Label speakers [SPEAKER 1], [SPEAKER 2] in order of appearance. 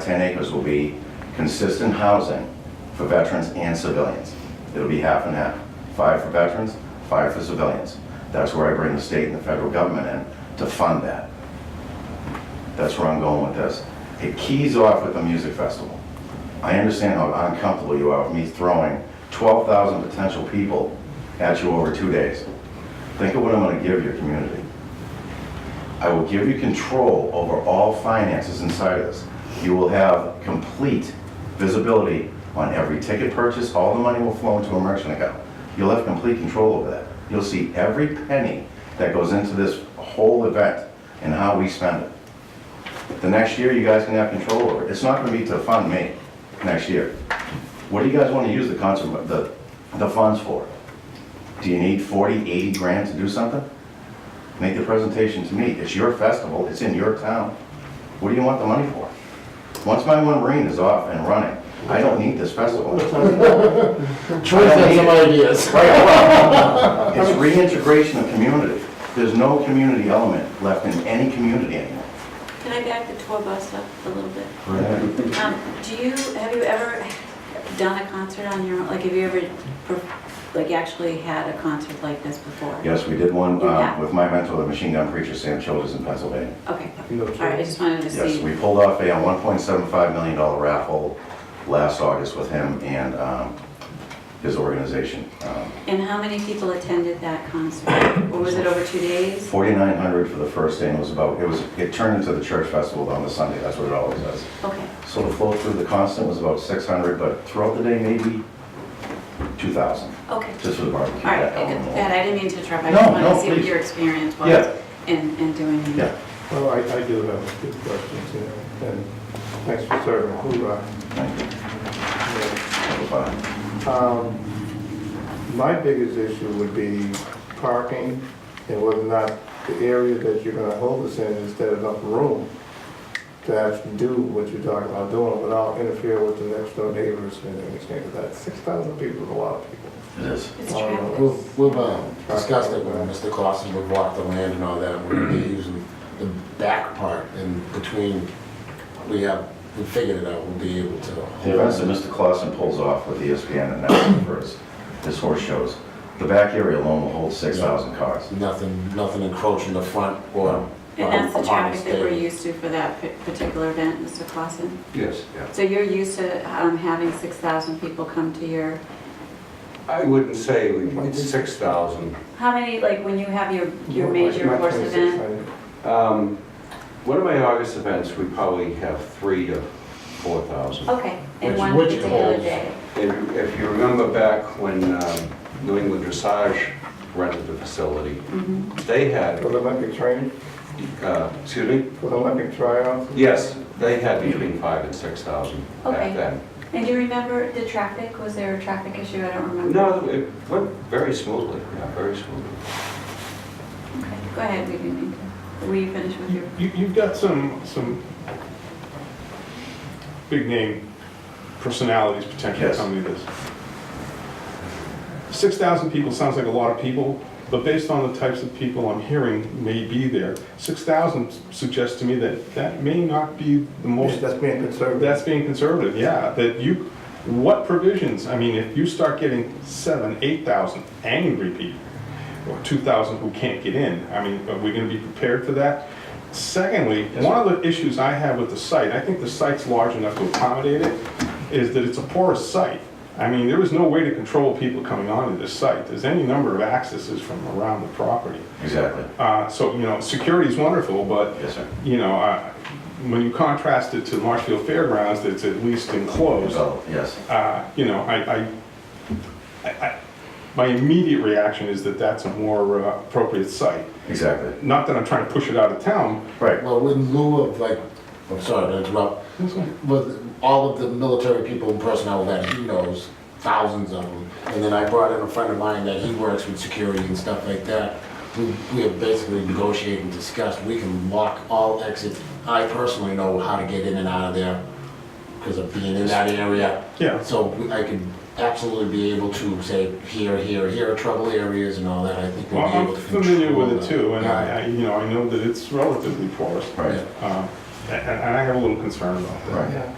[SPEAKER 1] 10 acres will be consistent housing for veterans and civilians. It'll be half and half, five for veterans, five for civilians. That's where I bring the state and the federal government in to fund that. That's where I'm going with this. It keys off with the music festival. I understand how uncomfortable you are with me throwing 12,000 potential people at you over two days. Think of what I'm going to give your community. I will give you control over all finances inside of this. You will have complete visibility on every ticket purchase, all the money will flow into a merchant account. You'll have complete control over that. You'll see every penny that goes into this whole event and how we spend it. The next year, you guys can have control over it. It's not gonna be to fund me next year. What do you guys wanna use the concert, the, the funds for? Do you need 40, 80 grand to do something? Make the presentation to me. It's your festival, it's in your town. What do you want the money for? Once my one marine is off and running, I don't need this festival.
[SPEAKER 2] Troy has some ideas.
[SPEAKER 1] It's reintegration of community. There's no community element left in any community anymore.
[SPEAKER 3] Can I back the tour bus up a little bit?
[SPEAKER 1] Correct.
[SPEAKER 3] Um, Do you, have you ever done a concert on your own? Like, have you ever, per- like, actually had a concert like this before?
[SPEAKER 1] Yes, we did one uh,
[SPEAKER 3] Yeah.
[SPEAKER 1] with my mentor, the machine gun preacher, Sam Childers in Pennsylvania.
[SPEAKER 3] Okay, all right, I just wanted to
[SPEAKER 1] Yes,
[SPEAKER 3] see.
[SPEAKER 1] we pulled off a $1.75 million raffle last August with him and um, his organization. Um,
[SPEAKER 3] And how many people attended that concert? Or was it over two days?
[SPEAKER 1] 4,900 for the first day, and it was about, it was, it turned into the church festival on the Sunday, that's what it always does.
[SPEAKER 3] Okay,
[SPEAKER 1] So the flow through the constant was about 600, but throughout the day, maybe 2,000,
[SPEAKER 3] okay.
[SPEAKER 1] just for the barbecue.
[SPEAKER 3] All right,
[SPEAKER 1] that
[SPEAKER 3] I
[SPEAKER 1] element
[SPEAKER 3] got
[SPEAKER 1] alone.
[SPEAKER 3] that, I didn't mean to interrupt. I
[SPEAKER 1] No,
[SPEAKER 3] just wanted
[SPEAKER 1] no,
[SPEAKER 3] to see what
[SPEAKER 1] please.
[SPEAKER 3] your experience
[SPEAKER 1] Yeah.
[SPEAKER 3] was in, in doing it.
[SPEAKER 1] Yeah,
[SPEAKER 2] Well, I, I do have a few questions, you know, and thanks for serving, hoorah.
[SPEAKER 1] thank you.
[SPEAKER 2] you
[SPEAKER 1] Have a fun.
[SPEAKER 2] know. Um, My biggest issue would be parking and whether or not the area that you're gonna hold us in is there enough room to actually do what you're talking about doing without interfering with the next door neighbors and everything like that. Six thousand people is a lot of people.
[SPEAKER 1] It is.
[SPEAKER 3] It's
[SPEAKER 2] Oh,
[SPEAKER 3] traffic.
[SPEAKER 4] We've, we've um, discussed it with Mr. Clausen, we've walked the land and all that, we're gonna be using the back part and between, we have, we figured it out, we'll be able to.
[SPEAKER 1] The events that Mr. Clausen pulls off with E ESPN and now for his, his horse shows, the back area alone will hold 6,000 cars.
[SPEAKER 4] Nothing, nothing encroaching the front or.
[SPEAKER 3] And that's the
[SPEAKER 4] um,
[SPEAKER 3] traffic that we're
[SPEAKER 4] upon the
[SPEAKER 3] used to for that pa- particular event, Mr. Clausen?
[SPEAKER 5] Yes, yeah.
[SPEAKER 3] So you're used to um, having 6,000 people come to your,
[SPEAKER 5] I wouldn't say we need 6,000.
[SPEAKER 3] how many, like, when you have your, your
[SPEAKER 2] Like
[SPEAKER 3] major
[SPEAKER 2] my
[SPEAKER 3] horse
[SPEAKER 2] 26
[SPEAKER 3] event?
[SPEAKER 2] hundred.
[SPEAKER 5] Um, One of my August events, we probably have three to 4,000.
[SPEAKER 3] Okay, in
[SPEAKER 4] Which-
[SPEAKER 3] one
[SPEAKER 4] which
[SPEAKER 3] particular
[SPEAKER 4] holds-
[SPEAKER 3] day.
[SPEAKER 5] And if you remember back when um, New England Dressage rented the facility,
[SPEAKER 3] Mhm.
[SPEAKER 5] they had,
[SPEAKER 2] For the Olympic training,
[SPEAKER 5] uh, excuse me?
[SPEAKER 2] for the Olympic tryouts.
[SPEAKER 5] Yes, they had between five and 6,000
[SPEAKER 3] Okay.
[SPEAKER 5] back then.
[SPEAKER 3] And do you remember the traffic? Was there a traffic issue? I don't remember.
[SPEAKER 5] No, it went very smoothly, yeah, very smoothly.
[SPEAKER 3] Okay, Go ahead, we didn't mean to. Will you finish with your,
[SPEAKER 6] You, you've got some, some big name personalities potentially
[SPEAKER 1] Yes.
[SPEAKER 6] coming to this. Six thousand people sounds like a lot of people, but based on the types of people I'm hearing may be there, six thousand suggests to me that that may not be the most,
[SPEAKER 2] That's being conservative.
[SPEAKER 6] that's being conservative, yeah, that you, what provisions, I mean, if you start getting seven, eight thousand angry people, or two thousand who can't get in, I mean, are we gonna be prepared for that? Secondly, one of the issues I have with the site, I think the site's large enough to accommodate it, is that it's a porous site. I mean, there is no way to control people coming onto this site, there's any number of accesses from around the property.
[SPEAKER 1] Exactly.
[SPEAKER 6] Uh, so, you know, security's wonderful, but
[SPEAKER 1] Yes, sir.
[SPEAKER 6] you know, I- when you contrast it to Marshfield Fairgrounds, that's at least enclosed,
[SPEAKER 1] Develop, yes.
[SPEAKER 6] uh, you know, I, I, I- I- my immediate reaction is that that's a more uh, appropriate site.
[SPEAKER 1] Exactly.
[SPEAKER 6] Not that I'm trying to push it out of town.
[SPEAKER 1] Right.
[SPEAKER 4] Well, in lieu of like, I'm sorry to interrupt, with all of the military people and personnel that he knows, thousands of them, and then I brought in a friend of mine that he works with security and stuff like that, we, we have basically negotiated and discussed, we can lock all exits. I personally know how to get in and out of there because of being in that area.
[SPEAKER 6] Yeah.
[SPEAKER 4] So we- I can absolutely be able to say, here, here, here are trouble areas and all that, I think
[SPEAKER 6] Well,
[SPEAKER 4] we'll be
[SPEAKER 6] I'm
[SPEAKER 4] able to control
[SPEAKER 6] familiar with it
[SPEAKER 4] that.
[SPEAKER 6] too, and
[SPEAKER 4] Yeah.
[SPEAKER 6] I, I- you know, I know that it's relatively porous. Um,
[SPEAKER 1] Right.
[SPEAKER 6] Uh, And and I have a little concern about that.
[SPEAKER 1] Right.